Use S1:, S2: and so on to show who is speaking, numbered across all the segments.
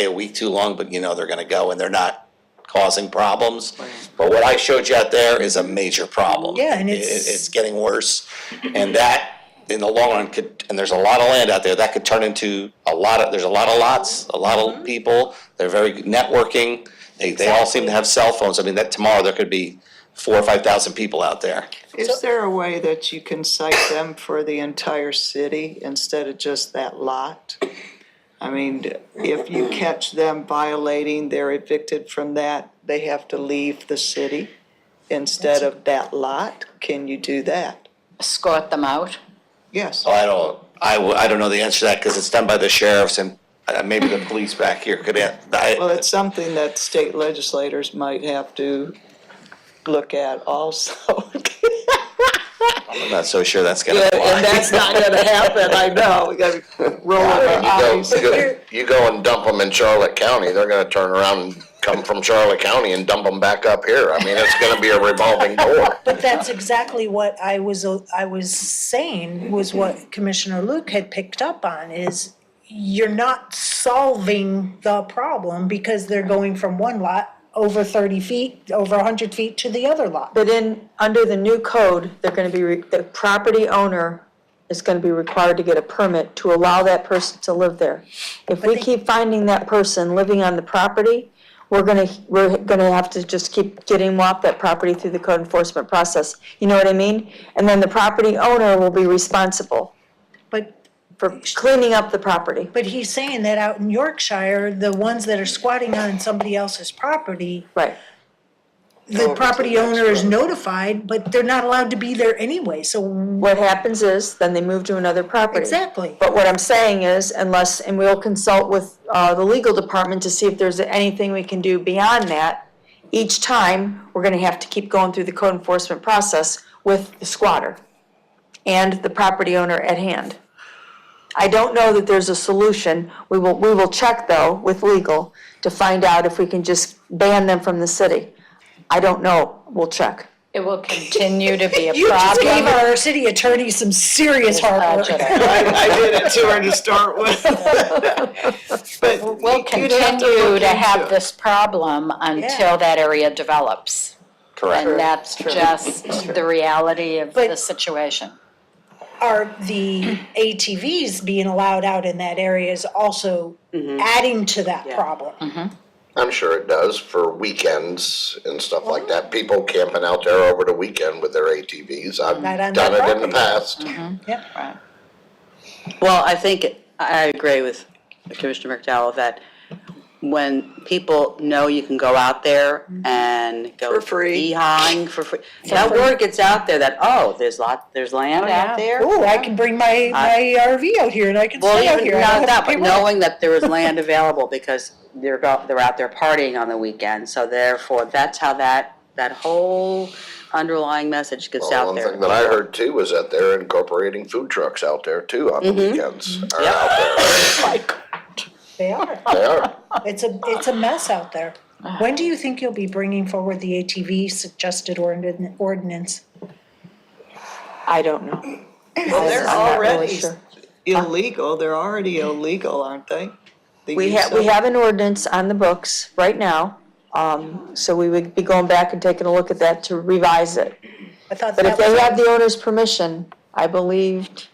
S1: stay a week too long, but you know they're gonna go and they're not causing problems. But what I showed you out there is a major problem.
S2: Yeah, and
S1: It-
S2: it's-
S1: It's getting worse, and that, in the long run, could, and there's a lot of land out there, that could turn into a lot of, there's a lot of lots, a lot
S2: Mm-hmm.
S1: of people, they're very good networking, they, they all seem to have cell phones, I mean, that tomorrow, there could be four or five thousand people out there.
S2: Is there a way that you can cite them for the entire city instead of just that lot? I mean, if you catch them violating, they're evicted from that, they have to leave the city instead of that lot? Can you do that?
S3: escort them out.
S2: Yes.
S1: So I don't, I, w- I don't know the answer to that, cause it's done by the sheriffs and, uh, maybe the police back here could, an- I,
S2: Well, it's something that state legislators might have to look at also.
S1: I'm not so sure that's gonna
S2: And
S1: fly.
S2: and that's not gonna happen, I know, we gotta roll our
S4: You
S2: eyes.
S4: go, you go- you go and dump them in Charlotte County, they're gonna turn around and come from Charlotte County and dump them back up here. I mean, it's gonna be a revolving door.
S5: But that's exactly what I was, I was saying, was what Commissioner Luke had picked up on, is you're not solving the problem because they're going from one lot over thirty feet, over hundred feet to the other lot.
S6: But in, under the new code, they're gonna be, re- the property owner is gonna be required to get a permit to allow that person to live there. If we
S5: they-
S6: keep finding that person living on the property, we're gonna, we're gonna have to just keep getting them off that property through the code enforcement process. You know what I mean? And then the property owner will be responsible
S5: But,
S6: for cleaning up the property.
S5: but he's saying that out in Yorkshire, the ones that are squatting on somebody else's property,
S6: Right.
S5: the
S2: it's
S5: property
S2: the next
S5: owner is
S2: road.
S5: notified, but they're not allowed to be there anyway, so,
S6: What happens is, then they move to another property.
S5: exactly.
S6: But what I'm saying is unless, and we'll consult with, uh, the legal department to see if there's anything we can do beyond that. Each time, we're gonna have to keep going through the code enforcement process with the squatter and the property owner at hand. I don't know that there's a solution. We will, we will check though with legal to find out if we can just ban them from the city. I don't know. We'll check.
S3: It will continue to be a
S5: You just gave
S3: problem. uh,
S5: our city attorney some serious hard work.
S2: I did it to her to start with. But
S3: We'll
S2: you'd have to
S3: continue
S2: look
S3: to
S2: into it.
S3: have this problem until that area develops.
S1: Correct.
S3: And that's just the reality of
S5: But-
S3: the situation.
S5: Are the ATVs being allowed out in that area is also
S6: Mm-hmm.
S5: adding to that problem?
S4: I'm sure it does for weekends and stuff like that. People camping out there over the weekend with their ATVs. I've
S5: Right on
S4: done
S5: their
S4: it in the
S5: property.
S4: past.
S5: Yep.
S3: Right.
S7: Well, I think, I agree with Commissioner McDowell that when people know you can go out there and go.
S2: For free.
S7: Behind for free. That word gets out there that, oh, there's lot, there's land
S3: yeah.
S7: out there.
S5: Ooh, I can bring
S6: Uh,
S5: my, my RV out here and I can
S7: Well,
S5: stay out
S7: even
S5: here. I
S7: not
S5: don't have to
S7: that, but
S5: pay rent.
S7: knowing that there is land available because they're go, they're out there partying on the weekend. So therefore, that's how that, that whole underlying message gets
S4: Well,
S7: out
S4: one
S7: there.
S4: thing that I heard too was that they're incorporating food trucks out there too on the weekends. Are out there.
S5: They are.
S4: They are.
S5: It's a, it's a mess out there. When do you think you'll be bringing forward the ATV suggested ordin- ordinance?
S6: I don't know.
S2: Well, they're
S6: I'm not really
S2: already
S6: sure.
S2: illegal, they're already illegal, aren't they? The
S6: We
S2: use
S6: have, we
S2: of-
S6: have an ordinance on the books right now, um, so we would be going back and taking a look at that to revise it.
S5: I thought
S6: But
S5: that
S6: if
S5: was.
S6: they have the owner's permission, I believed.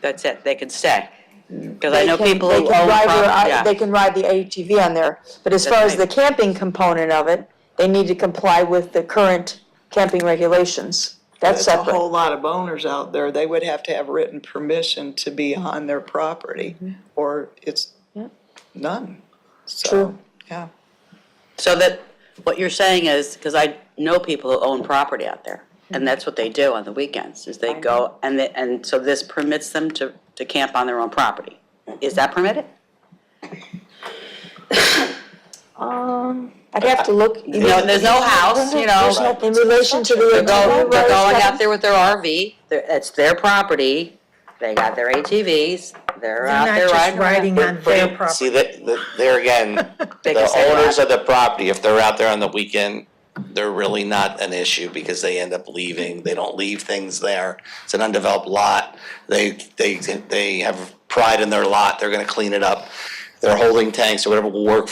S7: That's it, they can stay. Because I know
S6: they can-
S7: people
S6: they
S7: who own
S6: can ride their-
S7: property,
S6: I-
S7: yeah.
S6: They can ride the ATV on there, but as
S7: That's
S6: far as the
S7: right.
S6: camping component of it, they need to comply with the current camping regulations. That's
S2: There's a
S6: separate.
S2: whole lot of owners out there, they would have to have written permission to be on their property, or it's none. So,
S6: True.
S2: yeah.
S7: So that, what you're saying is, because I know people who own property out there, and that's what they do on the weekends, is they go, and they, and so this permits them to, to camp on their own property. Is that permitted?
S6: Um, I'd have to look.
S7: You know, and there's no house, you know,
S6: In relation to the.
S7: they're going,
S6: ATV
S7: they're going
S6: rides,
S7: out there with their RV, they're- it's their property, they got their ATVs, they're out
S5: They're
S7: there
S5: not just
S7: riding. around.
S5: riding on their
S1: See,
S5: property.
S1: that, that- there again,
S7: They
S1: the
S7: can say
S1: owners
S7: that.
S1: of the property, if they're out there on the weekend, they're really not an issue because they end up leaving, they don't leave things there. It's an undeveloped lot, they, they, they have pride in their lot, they're gonna clean it up. their holding tanks or whatever will work for